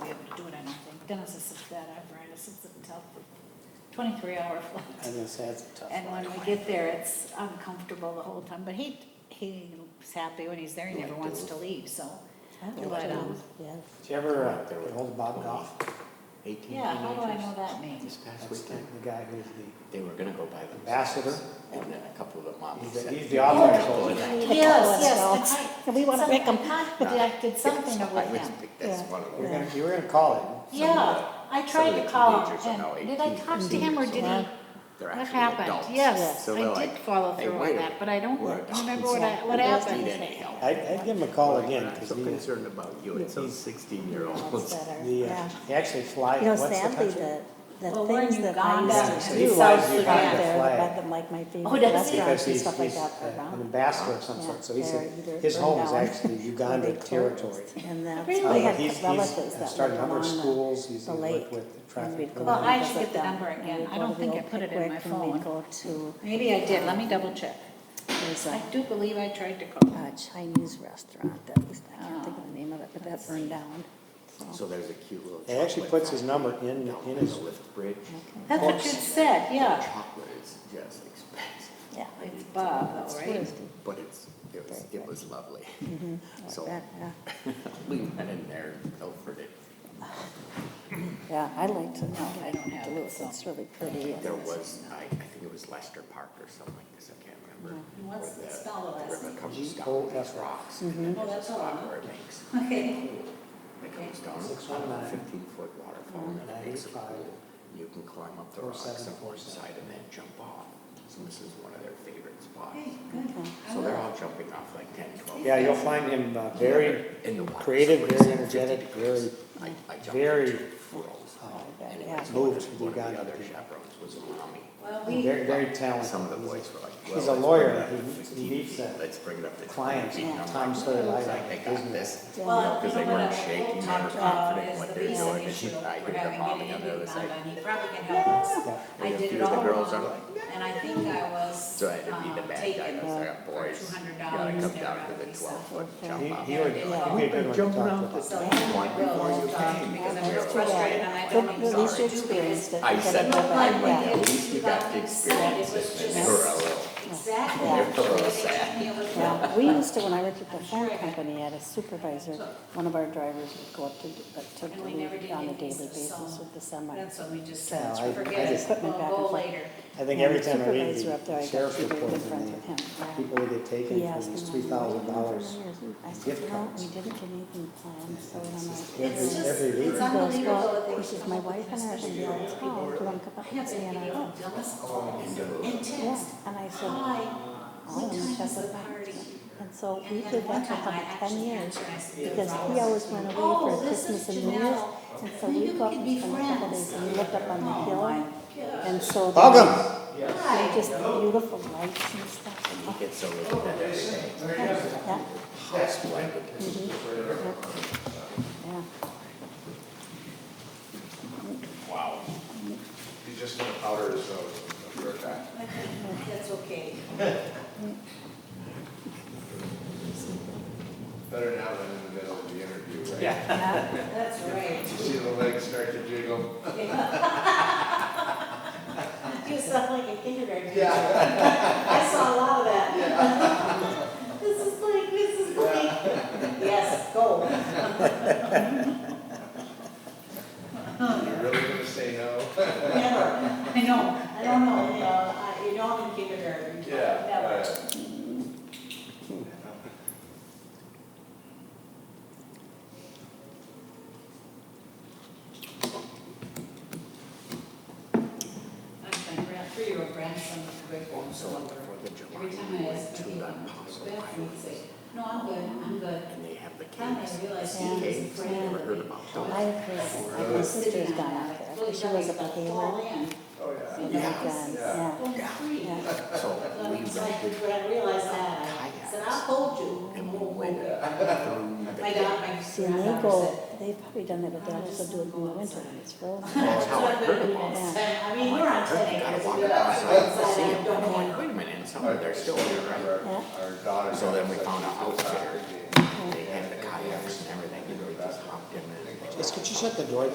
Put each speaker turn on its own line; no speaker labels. goodness, it's a bad apparatus, it's a tough twenty-three hour
I
flight.
was gonna say, that's a tough
And
one.
when we get there, it's uncomfortable the whole time, but he, he's happy when he's there, he never wants to leave, so. But, um,
Yes.
Did you ever uh, get hold of Bob Goff?
Eighteen
yeah, how do I know
teenagers.
that means?
This past
That's the,
weekend,
the guy who's the,
they were gonna go by themselves.
Ambassador?
And then a couple of them
he's
obviously.
the, he's the author of Soul Train.
Yes,
Take all
yes,
adults.
the type-
And we wanna pick 'em.
some- I contacted something with him.
That's
Yeah.
one of
You were
them.
gonna, you were gonna call
Yeah, I tried to
the
call
teenagers are
him,
now
and did I
18,
talk to him, or did he?
They're
What
actually adults.
happened? Yes,
So they're
I
like,
did follow
"Hey,
through
wait
on
a
that,
minute.
but I don't
We're
remember
adults.
what I, what
We don't
happened.
need any help.
him. I'd, I'd give him a call again,
I'm
because
so
he, the,
concerned about you and some sixteen year
That's
olds.
better,
uh,
yeah.
he actually flies,
You know,
what's the
sadly,
country?
the, the
Well, we're in
things that I
Uganda
used to
and
do
South
south
Sudan.
Sudan there,
Flag.
but the- like my
Oh,
favorite
does he?
restaurants
Because
and
he's,
stuff like
he's
that.
uh, an
around.
ambassador of some
Yeah,
sort, so he's,
they're
in-
either
his
burned
home is
down
actually
or they
Uganda territory.
closed. And that's,
Really?
we
Uh,
Uh,
had
He's,
relatives
he's
that
started a
lived
number of
along the.
schools, he's
the
worked
lake.
with the
and
traffic.
we'd go
Well,
and
program.
I should
visit
get the
them,
number
and
again.
we'd
I
go
don't
to the
think I
old
put it in my
Pickwick, and
phone.
we'd Go to,
Maybe I did, let me double check.
there's
I
a
do believe I tried to call.
a Chinese restaurant that was, I can't think of the name of it, but that burned down.
So there's a cute little.
He actually
chocolate
puts his
factory
number in,
down
in
on
his,
the lift bridge.
That's what you said, yeah.
Chocolate is just expensive,
Yeah.
It's Bob, though, right?
It's good.
but it's, it was, it was lovely.
Mm-hmm.
So
That, yeah.
we went in there and pilfered it.
Yeah, I like to,
No, I don't have it,
Duluth,
so.
it's really pretty. and
There
it's-
was, I, I think it was Lester Park or something like this, I can't remember.
And what's
where
the spell of
The river
that?
comes
G
down
O Mm-hmm.
on
F
these
R.
rocks. and
Mm-hmm.
Oh,
then there's
that's
a
all I
spot
know.
where it makes.
Okay.
It comes down on a
619.
fifteen foot waterfall
Mm-hmm.
and it makes a
95.
pool. You can climb up the rocks
47,
on one
47.
side and then jump off. So this is one of their favorite spots.
Hey, good. I
So they're
will.
all jumping off like ten, twelve.
yeah, you'll find him uh, very
In the water,
creative,
so it's
very
50
energetic,
degrees.
very, uh,
I, I jumped
very, Oh,
into froze.
yeah.
Anyways,
Moved
one of-
from
one of
Uganda
the other
to-
chaperones was a mommy.
Well, we,
very, very
Some of the
talented.
boys were like, well.
He's a
let's
lawyer.
bring it up to
He- he
15.
meets, uh,
Let's bring it up to
clients,
15. I'm
Tom
like,
Sawyer
"Well,
Live
it's like
Act,
They got
isn't
this.
well,
Because
you
they
know what,
weren't
I
shaking,
will
they were
talk about
confident in
is
what
the
they're
visa
doing. And
issue.
she, I
We're
heard the
having
mom
getting
on
it
the other side.
done. He probably can help us.
Yeah.
I
And
did
a
it
few of
all
the girls are
wrong,
like,
and I think I was,
So I had to be
uh,
the bad guy,
taken.
because I got boys,
$200
you gotta
and
come
they're
down
out
to the
of
twelve foot
He,
jump off.
he would, he'd be a good one to talk
So
with.
I will talk because I'm real frustrated and I don't
At
even know
least you
what to do because
experienced it.
I
You gotta
said,
go
I
back,
went,
yeah.
at least you got to experience it, and for a little.
Exactly.
Yeah.
They told me it was wrong.
Yeah, we used to, when I worked at the phone company, I had a supervisor, one of our drivers would go up to, uh, to
And we never did
Duluth on a
anything,
daily
so-
basis with the semi.
That's what we just
Yeah,
said,
I- I
forget it,
just-
we'll go later.
I think
Yeah,
every
the
time I read
supervisor up there, I
the
got
sheriff's
to be
report,
in front
and
of
the
him.
people that get taken
He
for
asked
these
me, "Well,
three thousand dollars.
what do you do for years?"
gift
I said, no,
cards.
we didn't get anything planned, so then I'm like.
It's
Every,
just-
every
it's un-
week.
He goes,
unbelievable that
well,
they
he
would
says,
come
my
up
wife
with
and I are
this
gonna be out of town, do you wanna come
Have
up and stay
been
on our
video
own?
of Dallas and
Yeah,
text.
and I said,
Hi,
All
what
of them
time
check
is the
with them.
party?
and so we
And then
did
one
that for
time I
about ten
actually
years.
answered, I said,
Because he always went away for
Oh, this
Christmas
is
and New Year's,
Janelle.
and so
Maybe
we
we
go up
could
and
be
spend a couple
friends.
days, and we looked up on the
Oh,
hill,
my God.
and so.
Welcome.
there's
Hi.
Just beautiful lights and stuff.
You get so little of that every day.
Yeah,
How splendid.
yeah.
Wow. He's just gonna powder his nose. I'll be right back.
That's okay.
Better now than in the middle of the interview, right?
Yeah.
That's right.
You see the legs start to jiggle?
You sound like a kindergarten teacher. I saw a lot of that. This is like, this is like, yes, go.
You're really gonna say no?
Never, I know, I don't know, you know, I- you know I'm in kindergarten. Never.
Yeah.
My grand, three-year-old grandson was a great one, so
So on the Fourth of
every time I
July, we
asked
went to
him,
the
"What's
Apostle
your uh, bathroom?"
Highway,
he'd say, no, I'm good, I'm good.
and they have the
Then I
caves.
realized
Sea
he was
caves, you
friend
ever
of
heard
the-
about
I
those?
have heard, my sister's
Sitting
gone
on
out
that,
there,
it's
because she
really
was up
dumb, it's about
at Hayward.
fall in. You
Oh, yeah.
And
know,
I've
it's-
done, yeah.
Well, free.
Yeah.
So
Well,
we
it's like,
rented
when I realized that, I
kayaks.
said, I'll hold you.
and
and
we
we'll
went
go."
through the
My
cave.
dad, my
See, and they
granddaughter
go,
said.
they've probably done it, but they also do it in the winter when it's frozen.
That's how I
"I'm
heard
gonna do
about it.
this." And, I mean, we're on
Heard
ten
you
acres,
gotta walk
we are
outside to see
outside, I
them.
don't
I'm going,
want.
wait a minute, and some of them are still there, right?
Yeah.
Our our daughter.
So then we found out
out
how it was.
was.
They had the kayaks and everything, and we just hopped in and.
Just, could you shut the door